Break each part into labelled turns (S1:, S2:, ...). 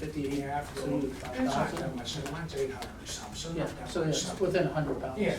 S1: fifty-eight afternoon, I thought, I said, mine's eight hundred or something.
S2: Yeah, so it's within a hundred pounds.
S1: Yeah.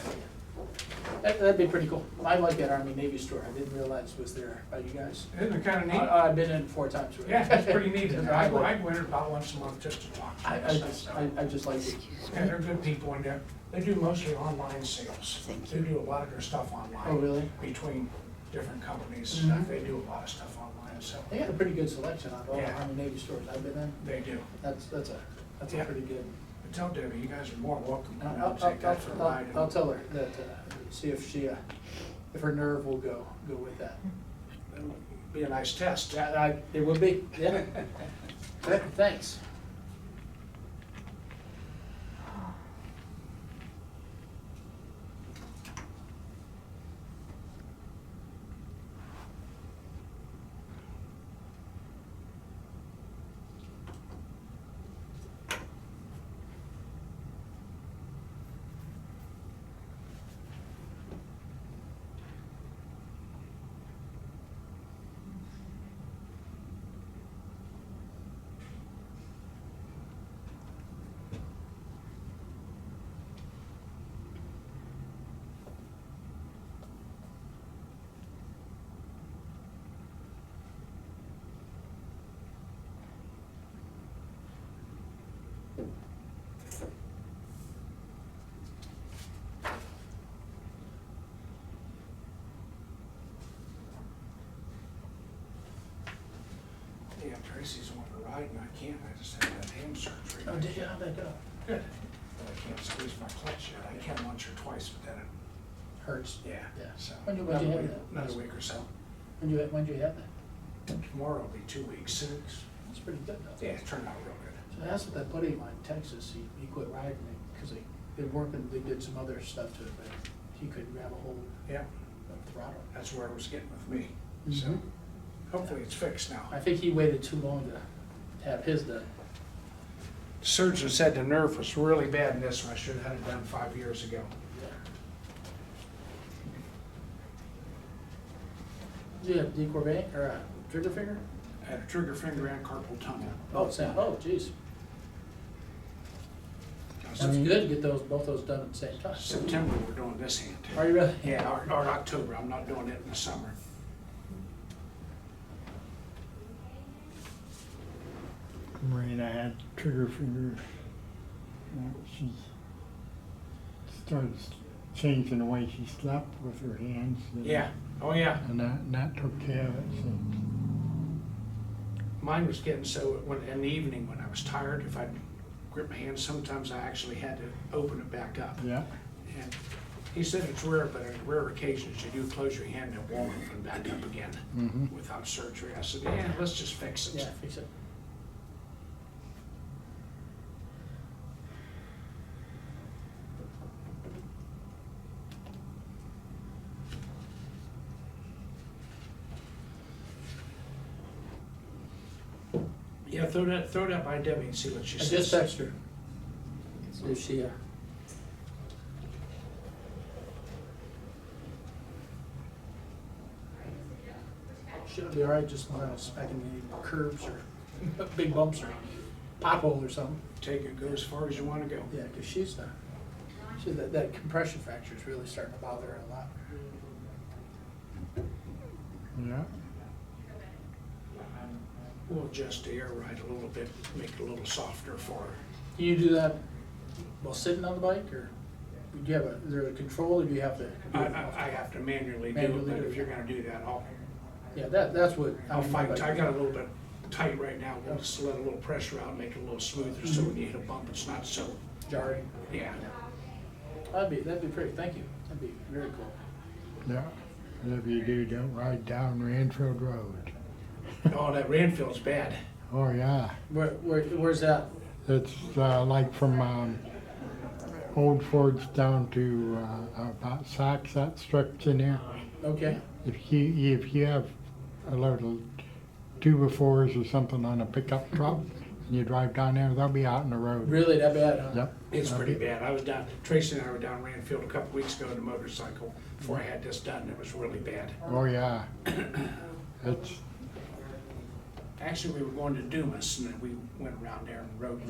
S2: That, that'd be pretty cool. I like that Army Navy store. I didn't realize was there by you guys.
S1: Isn't it kinda
S2: I-
S1: neat?
S2: I've been in four times already.
S1: Yeah, it's pretty neat, and I,
S2: I like-
S1: I go in about once a month just to talk to
S2: I,
S1: them.
S2: I just, I, I just like it.
S1: Yeah, they're good people in there, they do mostly online sales. They do a lot of their stuff online.
S2: Oh, really?
S1: Between different companies, and
S2: Mhm.
S1: stuff. they do a lot of stuff online, so,
S2: They got a pretty good selection out of all the
S1: Yeah.
S2: Army Navy stores I've been in.
S1: they do.
S2: That's, that's a, that's a
S1: Yeah.
S2: pretty good.
S1: But tell Debbie, you guys are more welcome,
S2: I'll,
S1: you know,
S2: I'll,
S1: to take
S2: I'll,
S1: that for a
S2: I'll-
S1: ride. and-
S2: I'll tell her that, uh, see if she, uh, if her nerve will go, go with that.
S1: Be a nice test.
S2: Yeah, I, it would be, yeah. Th- Thanks.
S1: Yeah, Tracy's wanting to ride, and I can't, I just had that hand surgery.
S2: Oh, did you, how'd that go?
S1: Good. But I can't squeeze my clutch yet, I can once or twice, but then, it-
S2: Hurts.
S1: yeah,
S2: Yeah.
S1: so.
S2: When you- when you
S1: another
S2: have
S1: week-
S2: that?
S1: Another week or so.
S2: When you, when you have that?
S1: Tomorrow will be two weeks, six.
S2: That's pretty good though.
S1: Yeah, it turned out real good.
S2: So that's what that buddy of mine, in Texas, he, he quit riding it, because they, they working, they did some other stuff to it, but he couldn't grab a hold
S1: Yeah,
S2: of throttle.
S1: that's where it was getting with me, so
S2: Mhm.
S1: hopefully it's fixed now.
S2: I think he waited too long to have his done.
S1: Surgeon said the nerve was really bad in this, and I should have had it done five years ago.
S2: Do you have decorvet or a trigger finger?
S1: I had a trigger finger and carpal tunnel.
S2: Oh, Sam, oh, geez. That's
S1: Sep-
S2: good to get those, both those done at the same time.
S1: September, we're doing this hand.
S2: Are you really?
S1: Yeah, or, or October, I'm not doing it in the summer.
S3: Marina had trigger finger. Uh, She started s- changing the way she slept with her hands. and-
S1: Yeah, oh yeah,
S3: And that, and that took care of it. So
S1: mine was getting so, when, in the evening, when I was tired, if I grip my hands, sometimes I actually had to open it back up.
S3: Yeah,
S1: And he said it's rare, but on rare occasions, you do close your hand and it won't open back up again
S3: Mhm.
S1: without surgery. I said, yeah, let's just fix it.
S2: Yeah, fix it.
S1: Yeah, throw that, throw that by Debbie and see what she
S2: I just
S1: says.
S2: texted her. See if she, uh, She'll be all right, just not smacking any curves or big bumps or pothole or something.
S1: Take it, go as far as you wanna go.
S2: Yeah, because she's, uh, she, that, that compression fracture is really starting to bother her a lot.
S3: yeah.
S1: We'll adjust the air right a little bit, make it a little softer for her.
S2: Do you do that while sitting on the bike or do you have a, is there a control or do you have to?
S1: I, I, I have to manually do it,
S2: Manually
S1: but
S2: do it.
S1: if you're gonna do that, I'll,
S2: Yeah, that, that's what.
S1: I'll fight. I
S2: tiger.
S1: got a little bit tight right now. We'll just let a little pressure out, make it a little smoother, so when you hit a bump, it's not so,
S2: Jarring.
S1: yeah.
S2: That'd be, that'd be great, thank you. That'd be very cool.
S3: Yeah. Whatever you do, don't ride down Ranfield Road.
S1: Oh, that Ranfield's bad.
S3: Oh, yeah.
S2: Where, where, where's that?
S3: It's uh, like from um, Old Forge down to uh, about Saks, that stretch in there.
S2: Okay,
S3: If you if you have a load of two befores or something on a pickup truck and you drive down there, they'll be out in the road.
S2: really that bad, huh?
S3: Yep.
S1: It's pretty bad. I was down, Tracy and I were down Ranfield a couple weeks ago on a motorcycle before I had this done. It was really bad.
S3: Oh yeah. It's
S1: actually, we were going to Dumas, and then we went around there and rode